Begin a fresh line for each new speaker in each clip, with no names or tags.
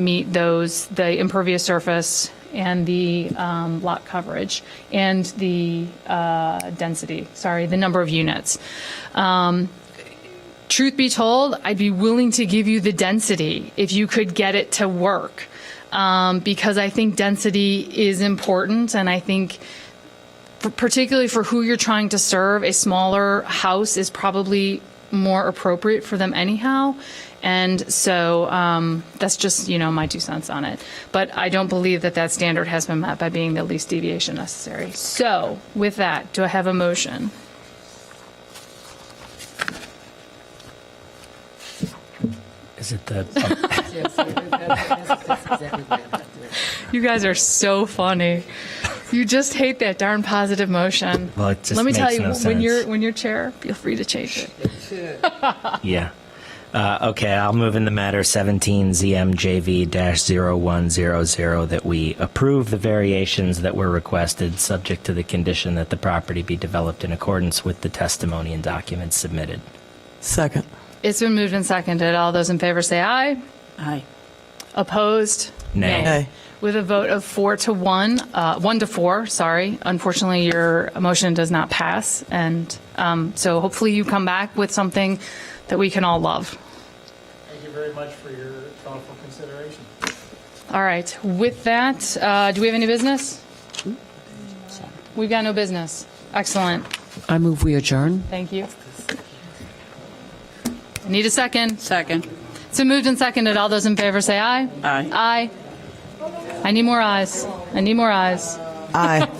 meet those, the impervious surface and the um, lot coverage and the uh, density, sorry, the number of units. Um, Truth be told, I'd be willing to give you the density if you could get it to work. Um, Because I think density is important and I think for- particularly for who you're trying to serve, a smaller house is probably more appropriate for them anyhow. And so um, that's just you know my two cents on it. But I don't believe that that standard has been met by being the least deviation necessary. So with that, do I have a motion?
Is it the,
Yes, that's- that's- that's exactly what I'm doing.
You guys are so funny. You just hate that darn positive motion.
Well, it just
Let me tell
makes
you,
no
when
sense.
you're when you're chair, feel free to change it.
Oh, yeah. Uh, okay, I'll move in the matter 17 ZMJV 0100 that we approve the variations that were requested, subject to the condition that the property be developed in accordance with the testimony and documents submitted.
Second.
It's been moved and seconded. All those in favor say aye.
Aye.
Opposed?
Nay.
Nay.
With a vote of four to one, uh, one to four, sorry. Unfortunately, your motion does not pass. And um, so hopefully you come back with something that we can all love.
Thank you very much for your thoughtful consideration.
All right. With that, uh, do we have any business? We've got no business. Excellent.
I move we adjourn.
Thank you. I Need a second.
Second.
It's been moved and seconded. All those in favor say aye.
Aye.
Aye. I need more eyes. I need more eyes.
Aye.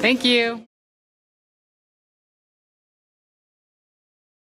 Thank you.